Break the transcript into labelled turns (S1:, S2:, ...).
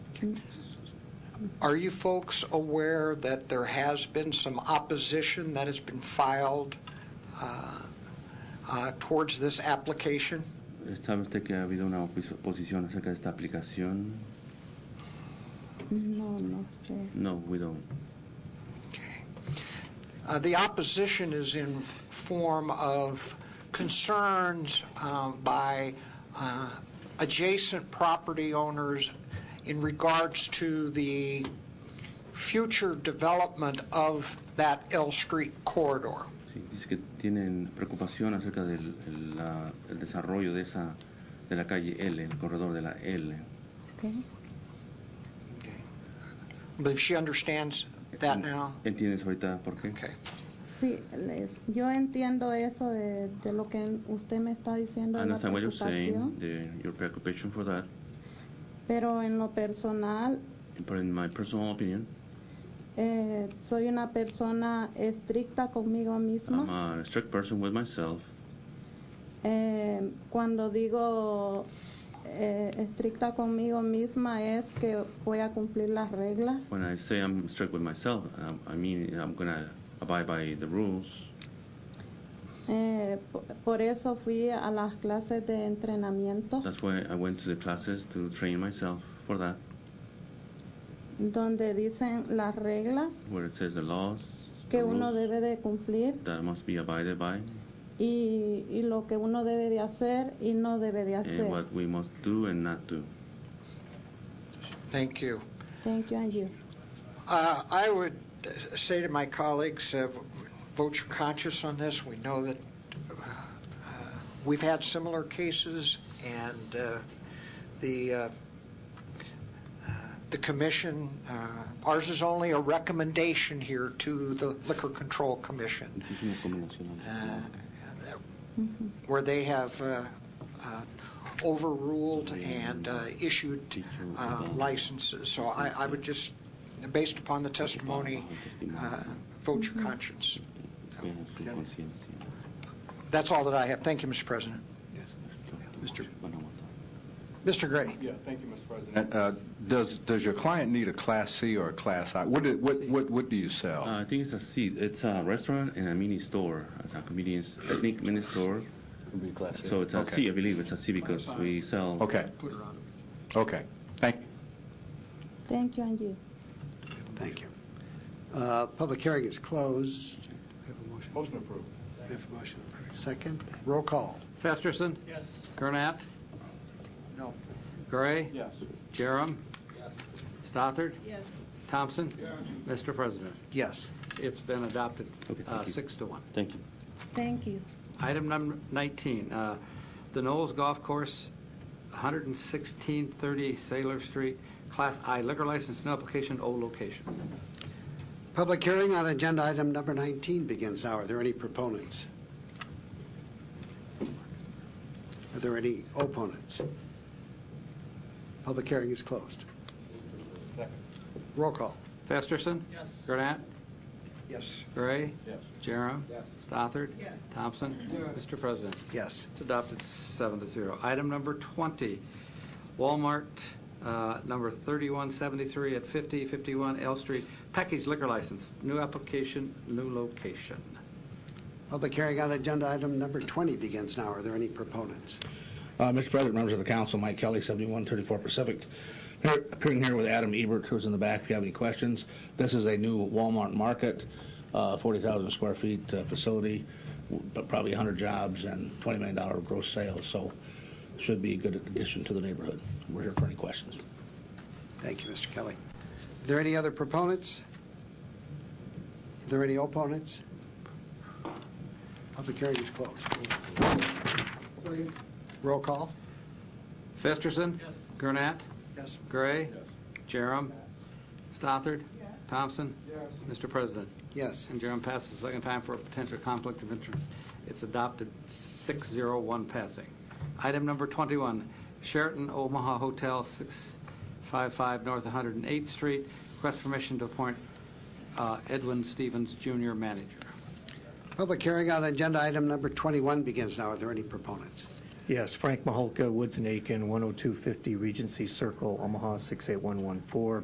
S1: Are you folks aware that there has been some opposition that has been filed uh, uh, towards this application?
S2: ¿Sabe usted que ha habido una opis- oposición acerca de esta aplicación?
S3: No, no sé.
S2: No, we don't.
S1: Uh, The opposition is in form of concerns um, by uh, adjacent property owners in regards to the future development of that L Street corridor.
S2: Sí, dice que tienen preocupación acerca del el, la- el desarrollo de esa de la calle L, el corredor de la L.
S3: Okay.
S1: I believe she understands that
S2: Mm-hmm.
S1: now.
S2: ¿Entiendes ahorita por qué?
S1: Okay.
S3: Sí, les- yo entiendo eso de, de lo que usted me está diciendo,
S2: I
S3: la
S2: understand what you're
S3: preocupación,
S2: saying, the, your preoccupation for that,
S3: pero en lo personal
S2: but in my personal opinion,
S3: eh, soy una persona estricta conmigo
S2: I'm
S3: misma.
S2: a strict person with myself.
S3: Eh, cuando digo eh, estricta conmigo misma es que voy a cumplir las reglas.
S2: When I say I'm strict with myself, um, I mean I'm gonna abide by the rules.
S3: Eh, po- por eso fui a las clases de entrenamiento
S2: That's why I went to the classes to train myself for that,
S3: donde dicen las reglas
S2: where it says the laws the
S3: que uno
S2: rules
S3: debe de cumplir
S2: that must be abided by,
S3: y, y lo que uno debe de hacer y no debe de hacer.
S2: and what we must do and not do.
S1: Thank you.
S3: Thank you, and you.
S1: Uh, I would uh, say to my colleagues, uh, vote your conscience on this. We know that uh, we've had similar cases, and uh, the uh, uh, the commission, uh, ours is only a recommendation here to the Liquor Control Commission,
S2: Muchísimo como nacional.
S1: uh, where they have uh, uh, overruled and uh, issued uh, licenses. So I, I would just, based upon the testimony, uh, vote your conscience.
S2: Pero su conciencia.
S1: That's all that I have. Thank you, Mr. President.
S2: Mr. Van a votar.
S1: Mr. Gray?
S4: Yeah, thank you, Mr. President. Uh, Does, does your client need a Class C or a Class I? What, do- what, what what do you sell?
S2: Uh, I think it's a seat. It's a restaurant and a mini store. It's a convenience, ethnic mini store.
S4: Ah,
S2: So it's a
S4: Okay.
S2: C, I believe. It's a C because we sell.
S4: Okay, okay. Thank,
S3: Thank you, and you.
S5: Thank you. Uh, Public hearing is closed. We have a motion.
S6: Motion approved.
S5: We have a motion. Second, roll call.
S7: Festerson.
S6: Yes.
S7: Gurnett.
S1: No.
S7: Gray.
S6: Yes.
S7: Jerem. Stothard. Thompson. Mr. President,
S5: Yes.
S7: it's been adopted
S2: Okay,
S7: uh,
S2: thank you.
S7: six to one.
S2: Thank you.
S3: Thank you.
S7: Item number 19, uh, the Knowles Golf Course, 11630 Sailor Street, Class I liquor license, no application, O location.
S5: Public hearing on agenda item number 19 begins now. Are there any proponents? Are there any opponents? Public hearing is closed.
S6: Second.
S5: Roll call.
S7: Festerson.
S6: Yes.
S7: Gurnett.
S1: Yes.
S7: Gray.
S6: Yes.
S7: Jerem. Stothard. Thompson. Mr. President,
S5: Yes.
S7: It's adopted seven to zero. Item number 20, Walmart, uh, number 3173 at 5051 L Street, package liquor license, new application, new location.
S5: Public hearing on agenda item number 20 begins now. Are there any proponents?
S8: Uh, Mr. President, members of the council, Mike Kelly, 7134 Pacific, Here- appearing here with Adam Ebert, who's in the back if you have any questions. This is a new Walmart market, uh, 40,000 square feet uh, facility, w- but probably 100 jobs and $20 million gross sales, so should be a good addition to the neighborhood. We're here for any questions.
S5: Thank you, Mr. Kelly. Are there any other proponents? Are there any opponents? Public hearing is closed. Roll call?
S7: Festerson. Yes. Gurnett.
S5: Yes.
S7: Gray. Jerem. Stothard. Thompson. Mr. President,
S5: Yes.
S7: and Jerem passes the second time for a potential conflict of interest. It's adopted 601 passing. Item number 21, Sheraton Omaha Hotel, 655 North 108th Street. Request permission to appoint uh, Edwin Stevens Jr. manager.
S5: Public hearing on agenda item number 21 begins now. Are there any proponents?
S6: Yes, Frank Maholka, Woods and Aiken, 10250 Regency Circle, Omaha 68114.